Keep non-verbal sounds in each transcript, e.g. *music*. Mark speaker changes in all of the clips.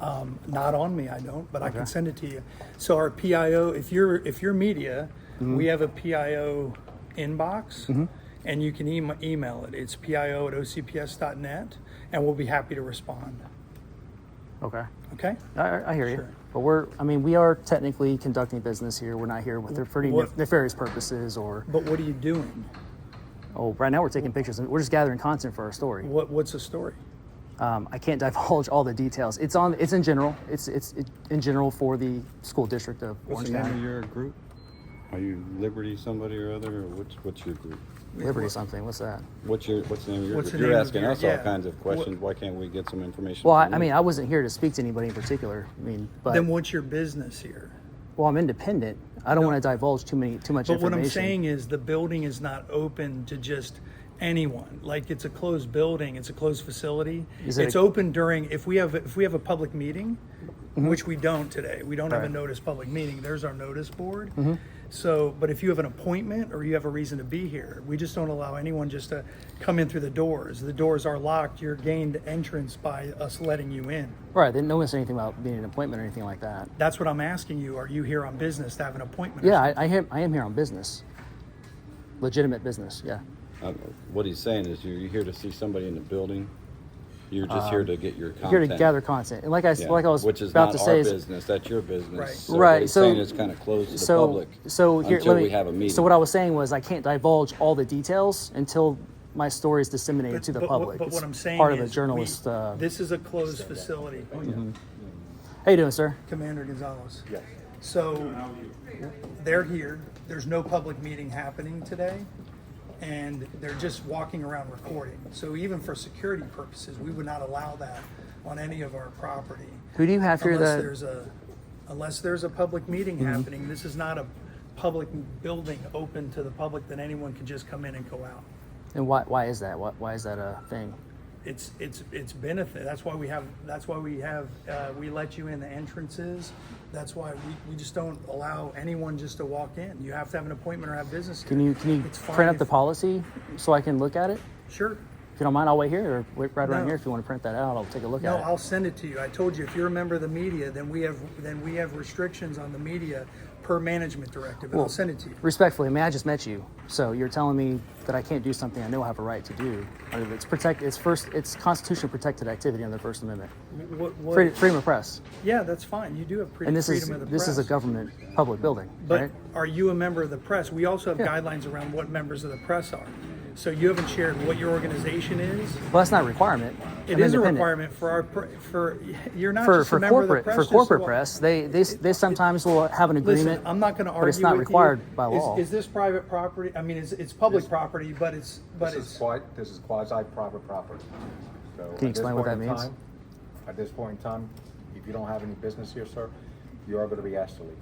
Speaker 1: Um, not on me, I don't, but I can send it to you. So our PIO, if you're if you're media, we have a PIO inbox, and you can em email it. It's PIO at OCPS.net, and we'll be happy to respond.
Speaker 2: Okay.
Speaker 1: Okay.
Speaker 2: I, I hear you.
Speaker 1: Sure.
Speaker 2: But we're, I mean, we are technically conducting business here. We're not here with nef- for any
Speaker 1: Mm, What-
Speaker 2: nef- nefarious purposes or,
Speaker 1: But what are you doing?
Speaker 2: oh, right now we're taking pictures and we're just gathering content for our story.
Speaker 1: What what's the story?
Speaker 2: Um, I can't *laughs* divulge all the details. It's on, it's in general. It's, it's it, in general for the school district of Orange
Speaker 3: What's the name
Speaker 2: County.
Speaker 3: of your group? Are you Liberty somebody or other, or what's, what's your group?
Speaker 2: Liberty something. What's that?
Speaker 3: What's your, what's the name of your
Speaker 1: What's
Speaker 3: group?
Speaker 1: the
Speaker 3: You're
Speaker 1: name of
Speaker 3: asking
Speaker 1: your-
Speaker 3: us all
Speaker 1: yeah.
Speaker 3: kinds of questions, why can't we get some information?
Speaker 2: Well, I,
Speaker 3: from
Speaker 2: I
Speaker 3: you?
Speaker 2: mean, I wasn't here to speak to anybody in particular. I mean, but
Speaker 1: Then what's your business here?
Speaker 2: well, I'm independent. I don't want to divulge too many too much
Speaker 1: But what
Speaker 2: information.
Speaker 1: I'm saying is the building is not open to just anyone. Like it's a closed building, it's a closed facility.
Speaker 2: Is it
Speaker 1: it's
Speaker 2: a-
Speaker 1: open during if we have if we have a public meeting, which we don't today. We don't have
Speaker 2: Mm-hmm. Right. Mm-hmm.
Speaker 1: a notice public meeting. There's our notice board. So, but if you have an appointment or you have a reason to be here, we just don't allow anyone just to come in through the doors. The doors are locked. You're gained entrance by us letting you in.
Speaker 2: right? They didn't know anything about being an appointment or anything like that.
Speaker 1: That's what I'm asking you. Are you here on business to have an appointment? or
Speaker 2: Yeah, I, I am. I am here on business. Legitimate business. Yeah.
Speaker 3: Uh, What he's saying is you're you're here to see somebody in the building, you're just here to get your content.
Speaker 2: Um, Here to gather content, and like I s-
Speaker 3: Yeah,
Speaker 2: like I was
Speaker 3: Which is
Speaker 2: about
Speaker 3: not
Speaker 2: to
Speaker 3: our
Speaker 2: say is
Speaker 3: business, that's your
Speaker 1: Right.
Speaker 3: business.
Speaker 2: Right,
Speaker 3: what he's
Speaker 2: so-
Speaker 3: Saying it's kind of closed to the
Speaker 2: so
Speaker 3: public.
Speaker 2: so here
Speaker 3: Until
Speaker 2: let me,
Speaker 3: we have a meeting.
Speaker 2: So what I was saying was I can't divulge all the details until my story is disseminated to the
Speaker 1: But- but what-
Speaker 2: public.
Speaker 1: But
Speaker 2: It's
Speaker 1: what I'm saying
Speaker 2: part of
Speaker 1: is
Speaker 2: the journalist.
Speaker 1: we-
Speaker 2: uh, Oh, Mm-hmm.
Speaker 1: This is a closed facility.
Speaker 2: how you doing, sir?
Speaker 1: Commander Gonzalez. Yes. So they're here. There's no public meeting happening today. And they're just walking around recording. So even for security purposes, we would not allow that on any of our property.
Speaker 2: Who do you have here?
Speaker 1: Unless
Speaker 2: that-
Speaker 1: there's a, unless there's a public meeting
Speaker 2: Mm-hmm.
Speaker 1: happening. This is not a public building open to the public that anyone can just come in and go out.
Speaker 2: And why, why is that? Why, why is that a thing?
Speaker 1: it's it's it's benefit. That's why we have. That's why we have. Uh, we let you in the entrances. That's why we, we just don't allow anyone just to walk in. You have to have an appointment or have business.
Speaker 2: Can
Speaker 1: here.
Speaker 2: you can you
Speaker 1: It's fine
Speaker 2: print up the
Speaker 1: if-
Speaker 2: policy so I can look at it?
Speaker 1: Sure.
Speaker 2: If you don't mind, I'll wait here or wait right around
Speaker 1: No.
Speaker 2: here if you want to print that out. I'll take a look
Speaker 1: No,
Speaker 2: at it.
Speaker 1: I'll send it to you. I told you if you're a member of the media, then we have then we have restrictions on the media per management directive. And I'll send it to you.
Speaker 2: Respectfully, I mean, I just met you, so you're telling me that I can't do something I know I have a right to do. I mean, It's protect. It's first. It's constitutionally protected activity under the First Amendment.
Speaker 1: What, what,
Speaker 2: Freedom, freedom of press,
Speaker 1: yeah, that's fine. You do have pre-
Speaker 2: and this
Speaker 1: freedom
Speaker 2: is
Speaker 1: of the
Speaker 2: this
Speaker 1: press.
Speaker 2: is a government public building,
Speaker 1: But
Speaker 2: right?
Speaker 1: are you a member of the press? We also have guidelines around what members of the press are. So you haven't shared what your organization is.
Speaker 2: Well, that's not a requirement.
Speaker 1: It
Speaker 2: I'm
Speaker 1: is a
Speaker 2: independent.
Speaker 1: requirement for our, pr- for, you're not
Speaker 2: for
Speaker 1: just a
Speaker 2: for
Speaker 1: member of the
Speaker 2: corporate
Speaker 1: press.
Speaker 2: for
Speaker 1: just
Speaker 2: corporate
Speaker 1: wa-
Speaker 2: press. They they they sometimes will have an agreement.
Speaker 1: Listen, I'm not gonna argue
Speaker 2: but it's not
Speaker 1: with you.
Speaker 2: required by
Speaker 1: Is-
Speaker 2: law.
Speaker 1: Is this private property? I mean, it's, it's public
Speaker 4: This-
Speaker 1: property, but it's, but
Speaker 4: This
Speaker 1: it's,
Speaker 4: is quasi, this is quasi private property. So at this
Speaker 2: explain what
Speaker 4: point
Speaker 2: that
Speaker 4: in
Speaker 2: means?
Speaker 4: time- At this point in time, if you don't have any business here, sir, you are gonna be asked to leave.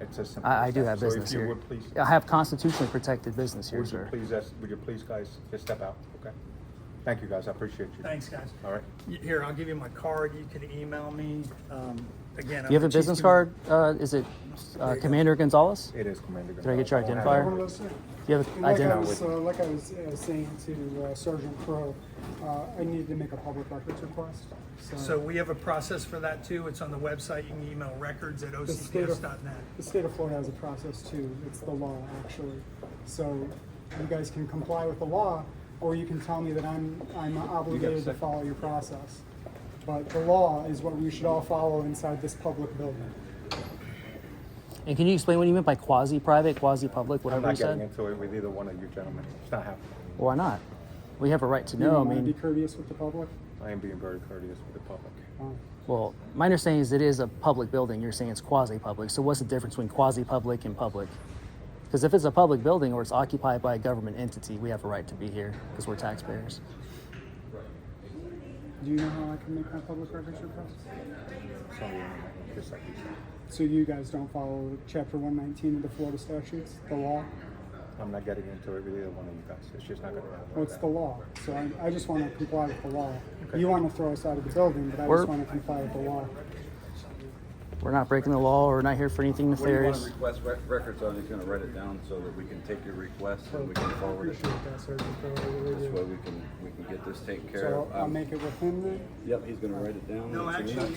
Speaker 4: It's as simple
Speaker 2: I, I
Speaker 4: as
Speaker 2: do
Speaker 4: that.
Speaker 2: have business
Speaker 4: So if
Speaker 2: here.
Speaker 4: you would please,
Speaker 2: I have constitutionally protected business here,
Speaker 4: would you
Speaker 2: sir.
Speaker 4: please, ask- would you please guys just step out, okay? Thank you, guys, I appreciate you.
Speaker 1: thanks, guys.
Speaker 4: All right.
Speaker 1: Y- Here, I'll give you my card. You can email me. Um, Again, I'm
Speaker 2: You have
Speaker 1: the
Speaker 2: a
Speaker 1: chief
Speaker 2: business
Speaker 1: commu-
Speaker 2: card? Uh, is it
Speaker 1: There
Speaker 2: uh,
Speaker 1: you go.
Speaker 2: Commander Gonzalez?
Speaker 4: It is Commander
Speaker 2: Can I get your
Speaker 4: Gonzalez.
Speaker 2: identifier?
Speaker 5: One of those, yeah.
Speaker 2: Do you have
Speaker 5: And
Speaker 2: an
Speaker 5: Like I
Speaker 2: identity?
Speaker 5: was, uh, like I was uh, saying to uh, Sergeant Crow, uh, I needed to make a public records request.
Speaker 1: So we have a process for that too. It's on the website. You can email records at
Speaker 5: The state of-
Speaker 1: ocps.net.
Speaker 5: The state of Florida has a process too, it's the law, actually. So you guys can comply with the law, or you can tell me that I'm, I'm obligated to
Speaker 4: second.
Speaker 5: follow your process. But the law is what we should all follow inside this public building.
Speaker 2: And can you explain what you meant by quasi-private, quasi-public,
Speaker 4: I'm
Speaker 2: whatever you
Speaker 4: not getting
Speaker 2: said?
Speaker 4: into it with either one of you gentlemen, it's not happening.
Speaker 2: Why not? We have a right to
Speaker 5: You
Speaker 2: know. I
Speaker 5: wanna Be
Speaker 2: mean,
Speaker 5: courteous with the public?
Speaker 4: I am being very courteous with the public.
Speaker 5: Uh,
Speaker 2: well, my understanding is it is a public building. You're saying it's quasi-public. So what's the difference between quasi-public and public? Because if it's a public building or it's occupied by a government entity, we have a right to be here because we're taxpayers.
Speaker 5: Do you know how I can make my public records request?
Speaker 4: So, just like you said,
Speaker 5: So you guys don't follow chapter one nineteen of the Florida statutes, the law?
Speaker 4: I'm not getting into it with either one of you guys, it's just not gonna happen.
Speaker 5: Well,
Speaker 4: like
Speaker 5: it's
Speaker 4: that.
Speaker 5: the law, so I, I just wanna comply with the law. You wanna throw us out of the building, but I
Speaker 2: We're-
Speaker 5: just wanna comply with the law.
Speaker 2: We're not breaking the law. We're not here for anything
Speaker 3: What do you want to
Speaker 2: nefarious.
Speaker 3: request rec- records on? He's gonna write it down so that we can take your request and we can forward it.
Speaker 5: Appreciate that, Sergeant Crowe, I really
Speaker 3: This
Speaker 5: do.
Speaker 3: way we can, we can get this taken care
Speaker 5: So
Speaker 3: of.
Speaker 5: I'll
Speaker 3: Um,
Speaker 5: make it with him then?
Speaker 3: Yep, he's gonna write it down.
Speaker 1: No,
Speaker 3: It's in
Speaker 1: actually,
Speaker 3: here.